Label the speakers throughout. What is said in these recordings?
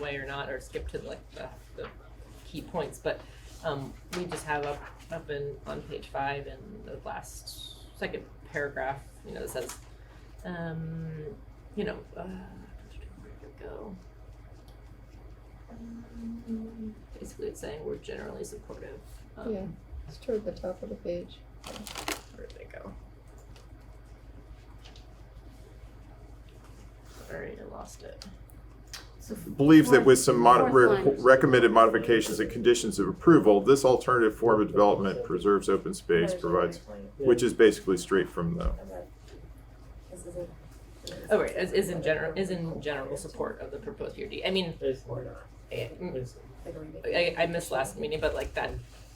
Speaker 1: way or not, or skip to like the, the key points, but, um, we just have up, up in, on page five in the last second paragraph, you know, that says, um, you know, uh, where did it go? Um, Basically, it's saying we're generally supportive. Um, of-
Speaker 2: Yeah, it's toward the top of the page.
Speaker 1: Where did it go? Sorry, I lost it.
Speaker 3: believes that with some mod-
Speaker 4: Fourth
Speaker 3: re-
Speaker 4: line.
Speaker 3: recommended modifications and conditions of approval, this alternative form of development preserves open space, provides, which is basically straight from the,
Speaker 5: This is a.
Speaker 1: Oh, right, is, is in general, is in general support of the proposed PRD. I mean,
Speaker 6: It's or not.
Speaker 1: eh, mm,
Speaker 6: It's-
Speaker 5: like a remake.
Speaker 1: I, I missed last meeting, but like that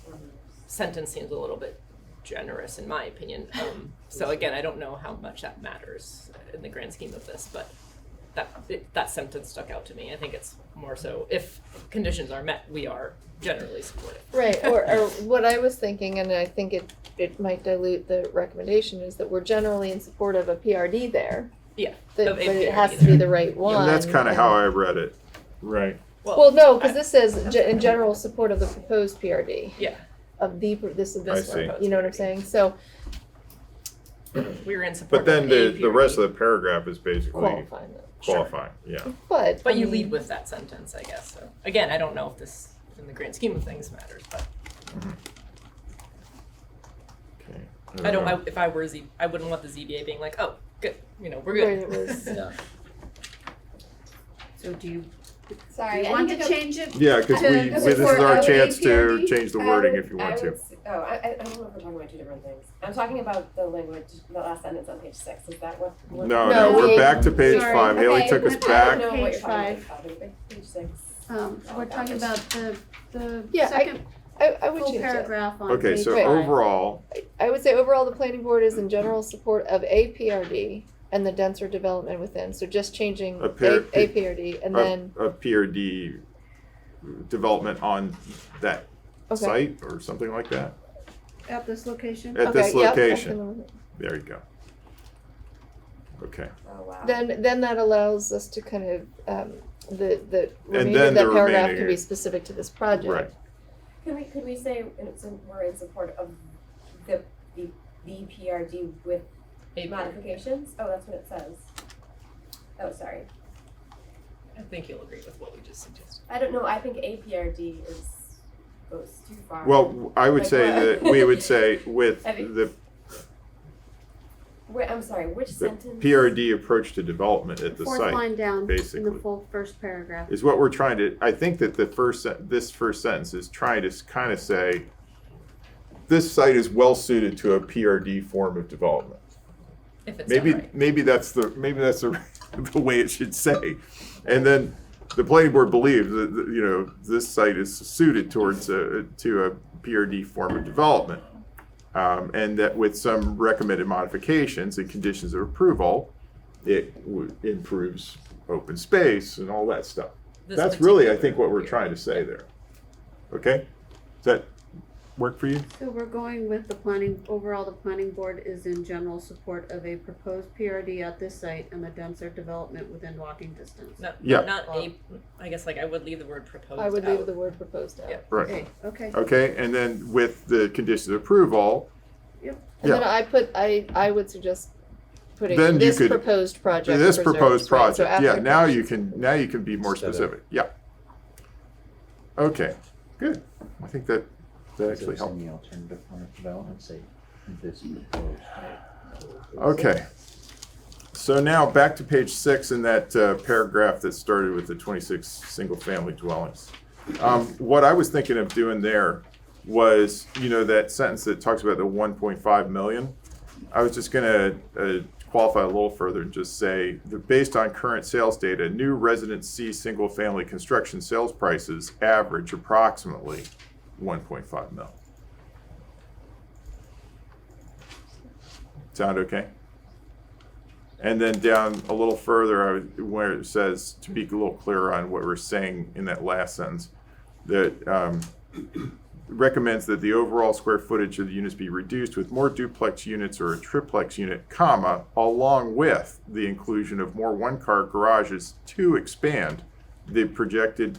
Speaker 5: Or no.
Speaker 1: sentence seems a little bit generous in my opinion. Um, so again, I don't know how much that matters in the grand scheme of this, but that, it, that sentence stuck out to me. I think it's more so if conditions are met, we are generally supportive.
Speaker 2: Right, or, or what I was thinking, and I think it, it might dilute the recommendation, is that we're generally in support of a PRD there.
Speaker 1: Yeah,
Speaker 2: That,
Speaker 1: of
Speaker 2: but
Speaker 1: a
Speaker 2: it
Speaker 1: PRD
Speaker 2: has to be
Speaker 1: there.
Speaker 2: the right one.
Speaker 3: and that's kind of how
Speaker 2: and-
Speaker 3: I read it. Right.
Speaker 2: Well, no, because this says ge- in general support of the proposed PRD,
Speaker 1: Yeah,
Speaker 2: of the, pro- this,
Speaker 3: I
Speaker 2: this
Speaker 3: see.
Speaker 2: one, you know what I'm saying? So
Speaker 1: we were in support
Speaker 3: But
Speaker 1: of
Speaker 3: then
Speaker 1: a
Speaker 3: the, the rest
Speaker 1: PRD.
Speaker 3: of the paragraph is basically
Speaker 2: qualifying that.
Speaker 1: Sure.
Speaker 3: qualifying, yeah.
Speaker 2: But. I
Speaker 1: But you
Speaker 2: mean,
Speaker 1: lead with that sentence, I guess. So again, I don't know if this, in the grand scheme of things, matters. But
Speaker 3: Okay.
Speaker 1: I don't.
Speaker 2: Mm-hmm.
Speaker 1: I, if I were Z, I wouldn't want the ZBA being like, "Oh, good, you know, we're
Speaker 2: Right,
Speaker 1: good."
Speaker 2: it was-
Speaker 1: Yeah.
Speaker 4: So do you do
Speaker 5: Sorry,
Speaker 4: you
Speaker 5: I
Speaker 4: want
Speaker 5: need
Speaker 4: to
Speaker 5: go-
Speaker 4: change it?
Speaker 3: Yeah, because
Speaker 4: To-
Speaker 3: we, this is
Speaker 5: for
Speaker 3: our
Speaker 5: OAPRD,
Speaker 3: chance to change the
Speaker 5: I
Speaker 3: wording
Speaker 5: would-
Speaker 3: if you want
Speaker 5: I
Speaker 3: to.
Speaker 5: would s- Oh, I, I I don't know if we're talking about two different things. I'm talking about the language, the last sentence on page six, is that what? what-
Speaker 3: No,
Speaker 2: No,
Speaker 3: no, we're
Speaker 2: we-
Speaker 3: back to page
Speaker 4: sorry.
Speaker 3: five. Haley
Speaker 4: Okay,
Speaker 3: took us
Speaker 4: we're
Speaker 5: I don't
Speaker 3: back.
Speaker 5: know
Speaker 4: Page
Speaker 5: what you're talking about, but page six. Oh,
Speaker 4: Um, we're talking about the, the
Speaker 2: Yeah, I-
Speaker 4: second
Speaker 2: I, I would
Speaker 4: full
Speaker 2: change that.
Speaker 4: paragraph on
Speaker 3: Okay,
Speaker 4: page
Speaker 3: so
Speaker 2: Right.
Speaker 4: five.
Speaker 3: overall,
Speaker 2: I would say overall, the planning board is in general support of a PRD and the denser development within, so just changing
Speaker 3: A
Speaker 2: a,
Speaker 3: PRD.
Speaker 2: a PRD and
Speaker 3: a,
Speaker 2: then,
Speaker 3: a PRD development on that
Speaker 2: okay.
Speaker 3: site or something like that.
Speaker 4: At this location?
Speaker 3: At this
Speaker 2: Okay, yep, I
Speaker 3: location.
Speaker 2: can-
Speaker 3: There you go. Okay,
Speaker 5: Oh, wow.
Speaker 2: Then, then that allows us to kind of, um, the, the remaining,
Speaker 3: then
Speaker 2: that
Speaker 3: the
Speaker 2: paragraph
Speaker 3: remaining-
Speaker 2: can be specific to this
Speaker 3: right.
Speaker 2: project.
Speaker 5: Can we, could we say it's in- we're in support of the, the, the PRD with
Speaker 1: Maybe.
Speaker 5: modifications? Oh, that's what it says. Oh, sorry.
Speaker 1: I think you'll agree with what we just suggested.
Speaker 5: I don't know, I think APRD is, goes too far.
Speaker 3: Well, I would
Speaker 5: Like
Speaker 3: say
Speaker 5: what?
Speaker 3: that we would say with
Speaker 5: I mean-
Speaker 3: the,
Speaker 5: Wait, I'm sorry, which
Speaker 3: the
Speaker 5: sentence?
Speaker 3: PRD approach to development at the
Speaker 4: Fourth
Speaker 3: site
Speaker 4: line down in
Speaker 3: basically.
Speaker 4: the full first paragraph.
Speaker 3: is what we're trying to, I think that the first, sen- this first sentence is trying to kind of say, this site is well suited to a PRD form of development.
Speaker 1: If it's
Speaker 3: Maybe,
Speaker 1: done right.
Speaker 3: maybe that's the, maybe that's the, the way it should say. And then the planning board believes that, that, you know, this site is suited towards a, to a PRD form of development. Um, and that with some recommended modifications and conditions of approval, it w- improves open space and all that stuff.
Speaker 1: This
Speaker 3: That's really, I
Speaker 1: particular
Speaker 3: think, what we're
Speaker 1: year.
Speaker 3: trying to say there. Okay? Does that work for you?
Speaker 4: So we're going with the planning, overall, the planning board is in general support of a proposed PRD at this site and the denser development within walking distance.
Speaker 1: Not,
Speaker 3: Yeah.
Speaker 1: Not a. I guess like I would leave the word proposed.
Speaker 2: I would leave
Speaker 1: Oh, out.
Speaker 2: the word proposed out.
Speaker 1: Yeah.
Speaker 3: Right.
Speaker 4: Okay, okay.
Speaker 3: Okay, and then with the conditions of approval,
Speaker 2: And then
Speaker 3: Yeah.
Speaker 2: I put, I, I would suggest putting
Speaker 3: Then you
Speaker 2: this
Speaker 3: could-
Speaker 2: proposed project.
Speaker 3: this
Speaker 2: preserves,
Speaker 3: proposed
Speaker 2: right, so
Speaker 3: project, yeah,
Speaker 2: after
Speaker 3: now
Speaker 2: that-
Speaker 3: you can, now you can be more
Speaker 7: Instead of-
Speaker 3: specific, yeah. Okay, good, I think that, that actually helped.
Speaker 7: the alternative form of development, say, this proposed.
Speaker 3: Okay. So now back to page six in that uh, paragraph that started with the 26 single-family dwellings. Um, What I was thinking of doing there was, you know, that sentence that talks about the 1.5 million. I was just gonna uh, qualify a little further and just say that based on current sales data, new residency single-family construction sales prices average approximately 1.5 mil. Sound okay? And then down a little further, I would- where it says, to be a little clearer on what we're saying in that last sentence, that um, recommends that the overall square footage of the units be reduced with more duplex units or a triplex unit, comma, along with the inclusion of more one-car garages to expand the projected